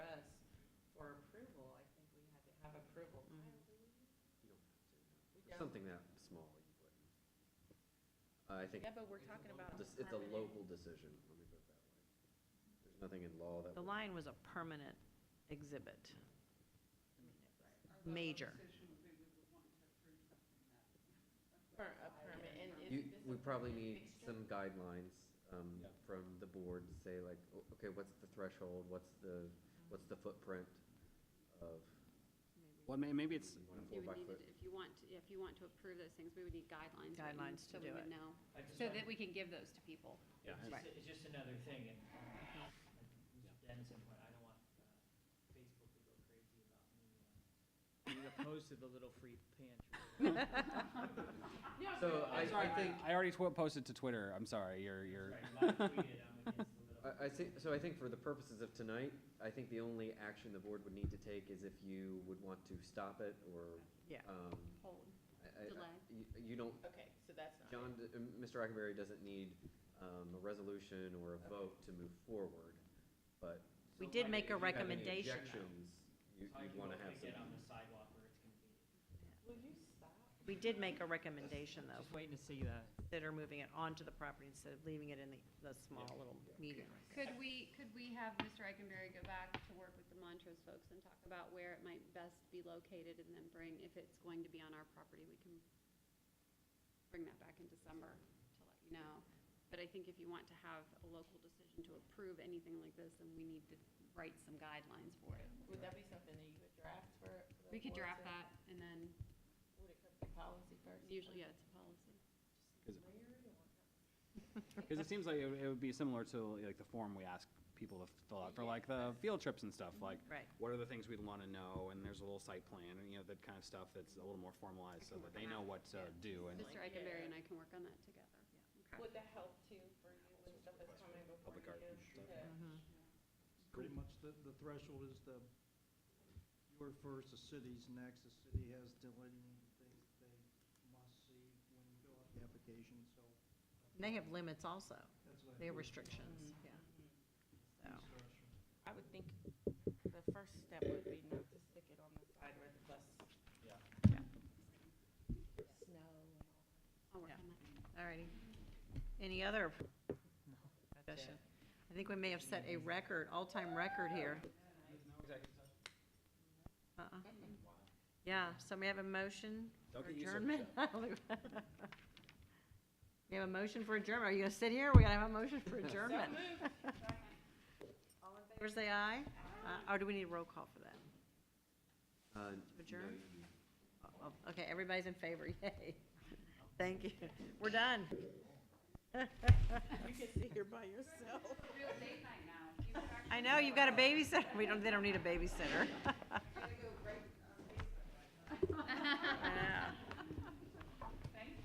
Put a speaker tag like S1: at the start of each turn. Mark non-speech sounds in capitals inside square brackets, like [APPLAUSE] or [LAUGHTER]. S1: Mm-hmm.
S2: something that small, you wouldn't. I think
S3: Yeah, but we're talking about.
S2: this- it's a local decision, let me put it that way. There's nothing in law that.
S4: The
S2: would-
S4: lion was a permanent exhibit. Major.
S3: Per- a permit, and is
S2: You,
S3: this
S2: we
S3: a
S2: probably
S3: permanent
S2: need
S3: fixture?
S2: some guidelines, um, from the board to say like, o- okay, what's the threshold, what's the,
S3: Mm-hmm.
S2: what's the footprint of?
S5: Well, may- maybe it's,
S2: you want a
S1: You
S2: four by
S1: would need,
S2: foot?
S1: to- if you want, to- if you want to approve those things, we would need guidelines. written
S4: Guidelines to
S1: So we
S4: do
S1: would
S4: it.
S1: know,
S6: I just
S1: so
S6: don't-
S1: that we can give those to people.
S6: Yeah, it's
S4: Right.
S6: just, it's just another thing, and, um, like Dennis said, I don't want uh, Facebook to go crazy about me. Being opposed to the little free pantry.
S2: So I,
S5: Sorry,
S2: I think,
S5: I already tw- posted to Twitter, I'm sorry, you're, you're,
S2: I, I think, so I think for the purposes of tonight, I think the only action the board would need to take is if you would want to stop it or.
S4: Yeah.
S2: Um,
S1: Hold.
S2: I, I-
S1: Delay.
S2: You, you don't,
S3: Okay, so that's not.
S2: John, d- uh, Mr. Ackenberry doesn't need, um, a resolution or a vote to move forward, but
S4: We did make a
S2: If you have any
S4: recommendation.
S2: objections, you, you'd wanna have
S6: Get on
S2: some.
S6: the sidewalk where it's convenient.
S3: Will you stop?
S4: We did make a recommendation, though,
S6: Just waiting to see that.
S4: that are moving it onto the property instead of leaving it in the, the small little medium.
S1: Could we, could we have Mr. Eikenberry go back to work with the Montrose folks and talk about where it might best be located and then bring, if it's going to be on our property, we can bring that back in December to let you know. But I think if you want to have a local decision to approve anything like this, then we need to write some guidelines for it.
S3: Would that be something that you would draft for? for the
S1: We could
S3: board
S1: draft
S3: to-
S1: that and then
S3: Would it come to policy first?
S1: usually, yeah, it's a policy.
S5: because it seems like it would- it would be similar to like the form we ask people to fill out for like the field trips and stuff, like,
S4: Right.
S5: what are the things we'd want to know, and there's a little site plan, and you know, that kind of stuff that's a little more formalized, so that they know what to do, and
S1: Mr. Eikenberry and I can work on that together. Okay.
S3: Would that help too for you when stuff is coming before
S5: Public art
S3: you?
S5: and stuff.
S3: to-
S7: Mm-hmm. Pretty much the, the threshold is the, your first, the city's next, the city has delineated things they must see when you fill out the application, so.
S4: And they have limits also.
S7: that's what
S4: They
S7: I Mm-hmm.
S4: have
S7: put
S4: restrictions, yeah. So,
S7: in instruction.
S3: I would think the first step would be not to stick it on the side where the bus.
S6: Yeah.
S3: Snow and all.
S1: I'll work
S4: Yeah.
S1: on that.
S4: all righty. Any other discussion? I think we may have set a record, all-time record here. Uh-uh. Yeah, so we have a motion for [LAUGHS] adjournment? We have a motion for adjournment. Are you gonna sit here? We're gonna have a motion for adjournment. All in favor, say aye. Uh, Or do we need a roll call for
S2: Uh,
S4: that?
S2: no,
S4: Adjourn?
S2: you-
S4: Oh, Okay, everybody's in favor, [LAUGHS]
S3: [LAUGHS]
S4: yay. Thank you. We're done.
S3: You can sit here by yourself.
S1: Real date night [LAUGHS] now. You would actually
S4: I know, you've got a babysitter. We don't, they
S1: uh,
S4: don't need a babysitter. I know.